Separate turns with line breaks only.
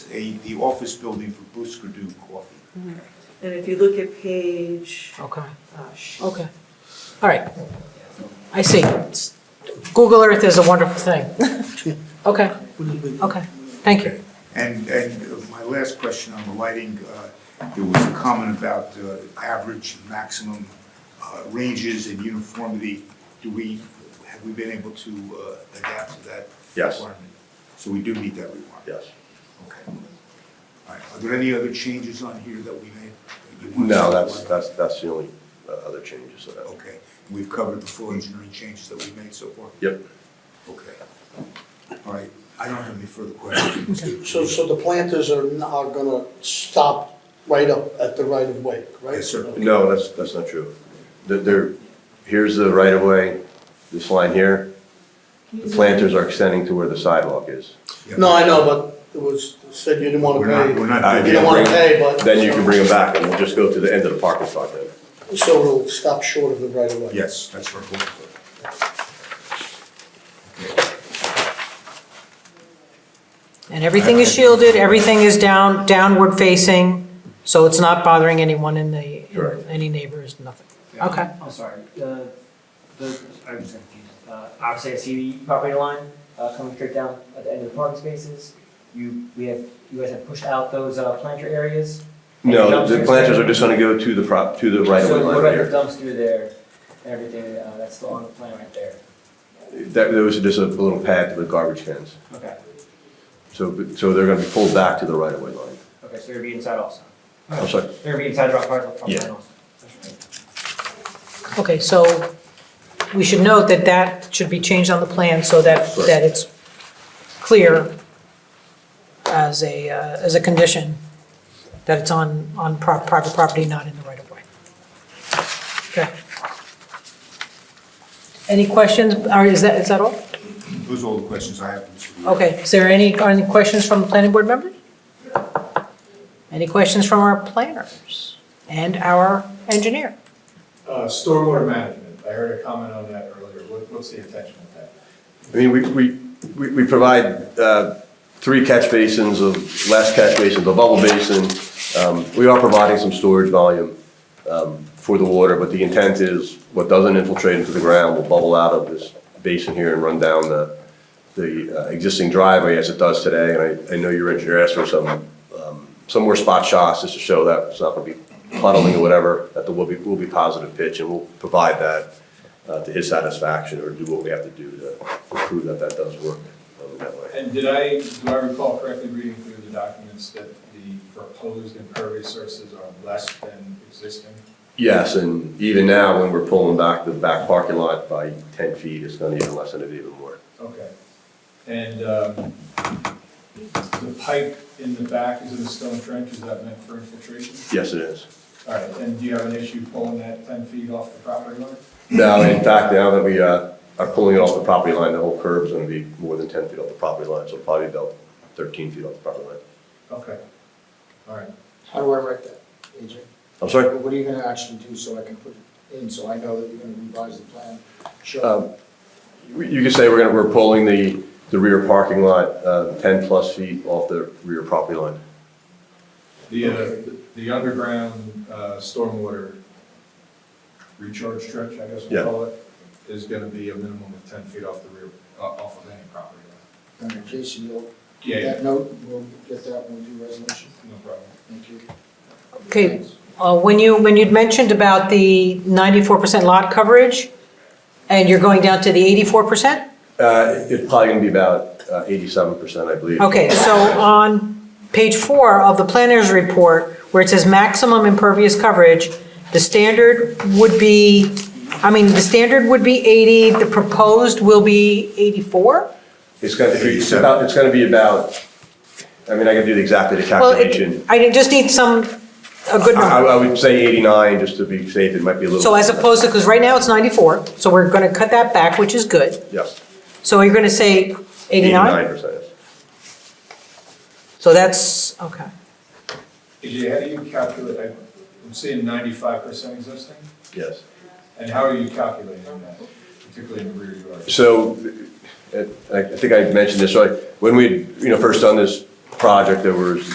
a, the office building for Bruce Gradu Coffee.
And if you look at page,
Okay,
oh, sh-
okay. All right. I see. Google Earth is a wonderful thing. Okay, okay. Thank you.
And, and my last question on the lighting, uh, there was a comment about uh, average, and maximum uh, ranges and uniformity. Do we, have we been able to uh, adapt to that
Yes.
requirement? So we do meet that requirement?
Yes.
Okay. All right, are there any other changes on here that we made? that you want to-
No, that's, that's, that's the only uh, other changes to that.
Okay, we've covered the full engineering changes that we made so far?
Yep.
Okay. All right, I don't have any further questions.
So, so the planters are, n- are gonna stop right up at the right of way, right?
Yes, sir.
No, that's, that's not true. There- There, here's the right of way, this line here. The planters are extending to where the sidewalk is.
Yeah.
No, I know, but it was, said you didn't wanna
We're not, we're
pay.
not.
I
You don't wanna pay, but.
Then you can bring them back and we'll just go to the end of the parking spot then.
So it'll stop short of the right of way.
Yes, that's our goal.
And everything is shielded, everything is down, downward facing, so it's not bothering anyone in the,
Correct.
any neighbors, nothing.
Yeah, I'm-
Okay.
I'm sorry, the, the, I'm just confused. Uh, obviously I see the property line, uh, coming straight down at the end of the parking spaces. You, we have, you guys have pushed out those, uh, planter areas. And
No, the
dumpsters-
planters are just gonna go to the prop, to the right of way
So
line
what
right
about the
here.
dumpster there, and everything, uh, that's still on the plan right there?
That, there was just a little pad to the garbage cans.
Okay,
So, so they're gonna be pulled back to the right of way line.
okay, so they're be inside also.
I'm sorry.
They're be inside Rock Hard, Rock Hard
Yeah.
also. That's right.
Okay, so we should note that that should be changed on the plan so that,
Sure.
that it's clear as a, uh, as a condition that it's on, on pro- private property, not in the right of way. Okay. Any questions, or is that, is that all?
Those are all the questions I have. Mr. Weaver.
Okay, is there any, any questions from the planning board members? Any questions from our planners and our engineer?
Uh, Stormwater management, I heard a comment on that earlier, What- what's the intention of that?
I mean, we, we, we we provide uh, three catch basins of, last catch basin, the bubble basin. Um, We are providing some storage volume um, for the water, but the intent is what doesn't infiltrate into the ground will bubble out of this basin here and run down the, the uh, existing driveway as it does today. And I, I know your engineer asked for some, um, some more spot shots just to show that it's not going to be puddling or whatever, that there will be, will be positive pitch and we'll provide that uh, to his satisfaction or do what we have to do to prove that that does work um, that way.
And did I, do I recall correctly reading through the documents that the proposed impervious surfaces are less than existing?
Yes, and even now, when we're pulling back the back parking lot by 10 feet, it's going to even lessen it even more.
Okay. And um, the pipe in the back is in a stone trench, is that meant for infiltration?
Yes, it is.
All right, and do you have an issue pulling that 10 feet off the property line?
Now, in fact, now that we uh, are pulling it off the property line, the whole curb's going to be more than 10 feet off the property line, so probably about 13 feet off the property line.
Okay, all right.
How do I write that, AJ?
I'm sorry?
What are you gonna actually do so I can put it in, so I know that you're gonna revise the plan?
Um, You you could say we're going to, we're pulling the, the rear parking lot uh, 10-plus feet off the rear property line.
The, uh, the underground uh, stormwater recharge trench, I guess
Yeah.
we'll call it, is gonna be a minimum of ten feet off the rear, uh, off of any property line.
And Jason, you'll,
Yeah, yeah,
that note, we'll get that when we do resolution.
no problem.
Thank you.
Okay, uh, when you, when you'd mentioned about the 94% lot coverage, and you're going down to the 84%?
Uh, It's probably going to be about uh, 87%, I believe.
Okay, so on page four of the planner's report, where it says maximum impervious coverage, the standard would be, I mean, the standard would be 80, the proposed will be 84?
It's gonna, it's about, it's gonna be about, I mean, I can do the exact
Well, it-
calculation.
I just need some, a good
I,
number.
I would say eighty-nine, just to be safe, it might be a little.
So as opposed to, because right now it's 94, so we're going to cut that back, which is good.
Yes.
So you're going to say 89?
percent.
So that's, okay.
AJ, how do you calculate, I- I'm seeing ninety-five percent existing,
Yes.
and how are you calculating that, particularly in the rear yard?
So, uh, I I think I mentioned this, so I- when we, you know, first done this project, there was